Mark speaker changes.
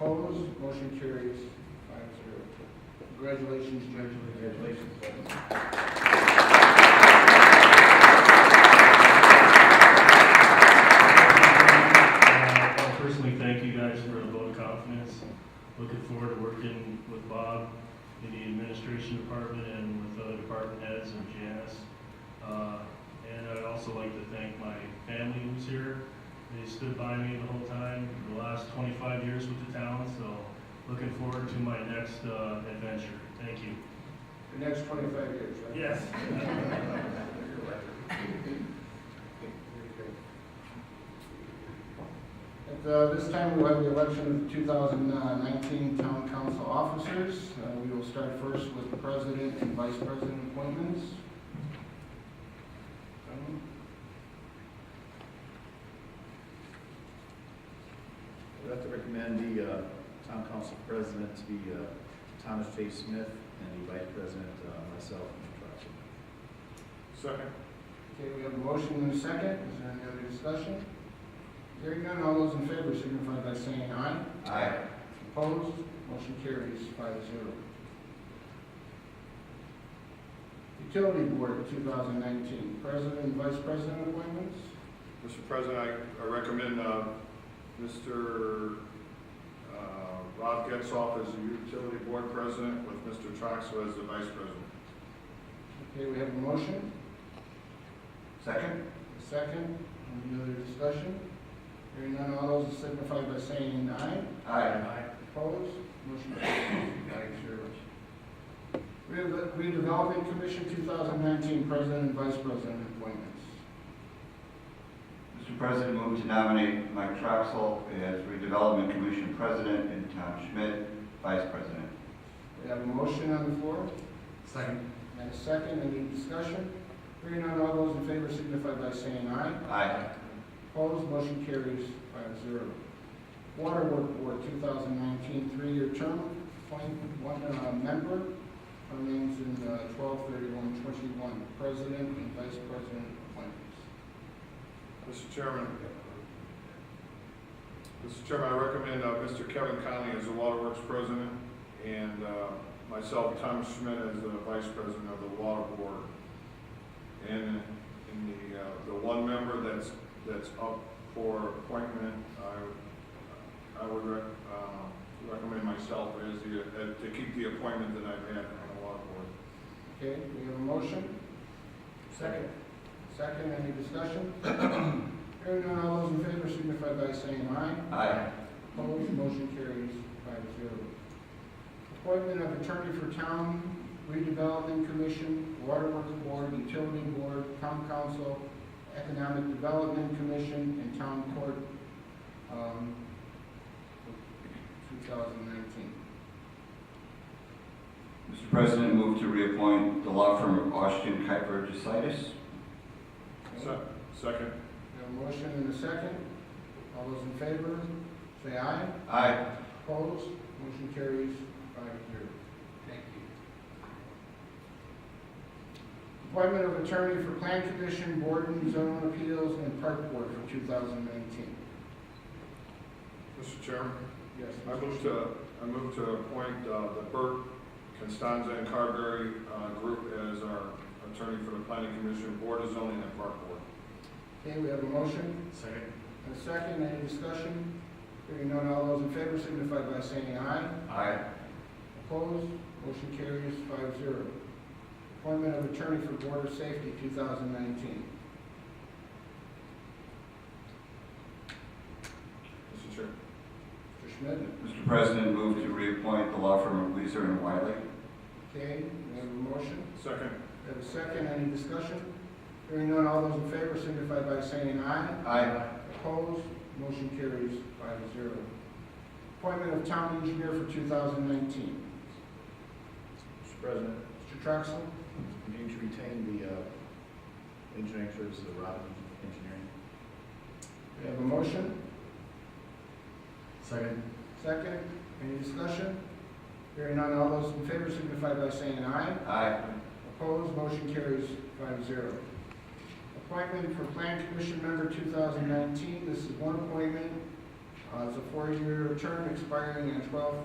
Speaker 1: Motion carries five zero. Congratulations, Judge.
Speaker 2: Congratulations.
Speaker 3: Uh, I personally thank you guys for the vote of confidence. Looking forward to working with Bob in the administration department and with other department heads and Janice. Uh, And I'd also like to thank my family who's here. They stood by me the whole time, for the last 25 years with the town, so looking forward to my next uh, adventure. Thank you.
Speaker 1: The next twenty-five years, right?
Speaker 3: Yes.
Speaker 1: At uh, this time, we'll have the election of 2019 Town Council officers. Uh, We will start first with the president and vice president appointments. Gentlemen?
Speaker 2: I'd like to recommend the uh, town council president to be uh, Thomas J. Smith and the vice president, uh, myself, Mr.
Speaker 1: Second. Okay, we have a motion and a second. Is there any other discussion? Hearing none, all those in favor signify by saying aye.
Speaker 2: Troxel. Aye.
Speaker 1: Opposed? Motion carries five zero. Utility Board 2019, President and Vice President appointments.
Speaker 4: Mr. President, I- I recommend uh, Mr. uh, Rob Getzoff as the utility board president with Mr. Troxel as the vice president.
Speaker 1: Okay, we have a motion,
Speaker 2: Second?
Speaker 1: a second, any other discussion? Hearing none, all those signify by saying aye.
Speaker 2: Aye.
Speaker 1: Opposed? Motion carries five zero. Re- Redevelopment Commission 2019, President and Vice President appointments.
Speaker 5: Mr. President, move to nominate Mike Troxel as Redevelopment Commission President and Tom Schmidt, Vice President.
Speaker 1: We have a motion on the floor.
Speaker 2: Second.
Speaker 1: And a second, any discussion? Hearing none, all those in favor signify by saying aye.
Speaker 5: Aye.
Speaker 1: Opposed, motion carries five zero. Water Work Board, 2019, three-year term, appoint one uh, member, her name's in uh, 123121, President and Vice President appointments.
Speaker 4: Mr. Chairman, Mr. Chairman, I recommend uh, Mr. Kevin Conley as the water works president and uh, myself, Thomas Schmidt, as the vice president of the water board. And in the, uh, the one member that's, that's up for appointment, I, I would rec- um, recommend myself as the, uh, to keep the appointment that I've had on the water board.
Speaker 1: Okay, we have a motion?
Speaker 2: Second.
Speaker 1: Second, any discussion? Hearing none, all those in favor signify by saying aye.
Speaker 5: Aye.
Speaker 1: Opposed, motion carries five zero. Appointment of attorney for town redevelopment commission, waterworks board, utility board, town council, economic development commission, and town court, um, two thousand nineteen.
Speaker 5: Mr. President, move to reappoint the law firm of Austin Kuiper DeSitis.
Speaker 4: Se- Second.
Speaker 1: We have a motion and a second. All those in favor, say aye.
Speaker 5: Aye.
Speaker 1: Opposed, motion carries five zero. Thank you. Appointment of attorney for Plan Commission, Board and Zone Appeals, and Park Board for 2019.
Speaker 4: Mr. Chairman?
Speaker 1: Yes.
Speaker 4: I move to, I move to appoint uh, the Burke, Constanza, and Carberry uh, group as our attorney for the planning commission, board of zoning, and park board.
Speaker 1: Okay, we have a motion
Speaker 2: Second.
Speaker 1: and a second. Any discussion? Hearing none, all those in favor signify by saying aye.
Speaker 5: Aye.
Speaker 1: Opposed, motion carries five zero. Appointment of attorney for Board of Safety 2019.
Speaker 4: Mr. Chair.
Speaker 1: Mr. Schmidt?
Speaker 5: Mr. President, move to reappoint the law firm of Leeser and Wiley.
Speaker 1: Okay, we have a motion.
Speaker 4: Second.
Speaker 1: We have a second, any discussion? Hearing none, all those in favor signify by saying aye.
Speaker 5: Aye.
Speaker 1: Opposed, motion carries five zero. Appointment of town engineer for two thousand nineteen.
Speaker 2: Mr. President,
Speaker 1: Mr. Troxel,
Speaker 2: we need to retain the uh, engineering services of Robin Engineering.
Speaker 1: we have a motion,
Speaker 2: Second.
Speaker 1: second, any discussion? Hearing none, all those in favor signify by saying aye.
Speaker 5: Aye.
Speaker 1: Opposed, motion carries five zero. Appointment for Plan Commission Member 2019, this is one appointment. Uh, It's a four-year term expiring in 12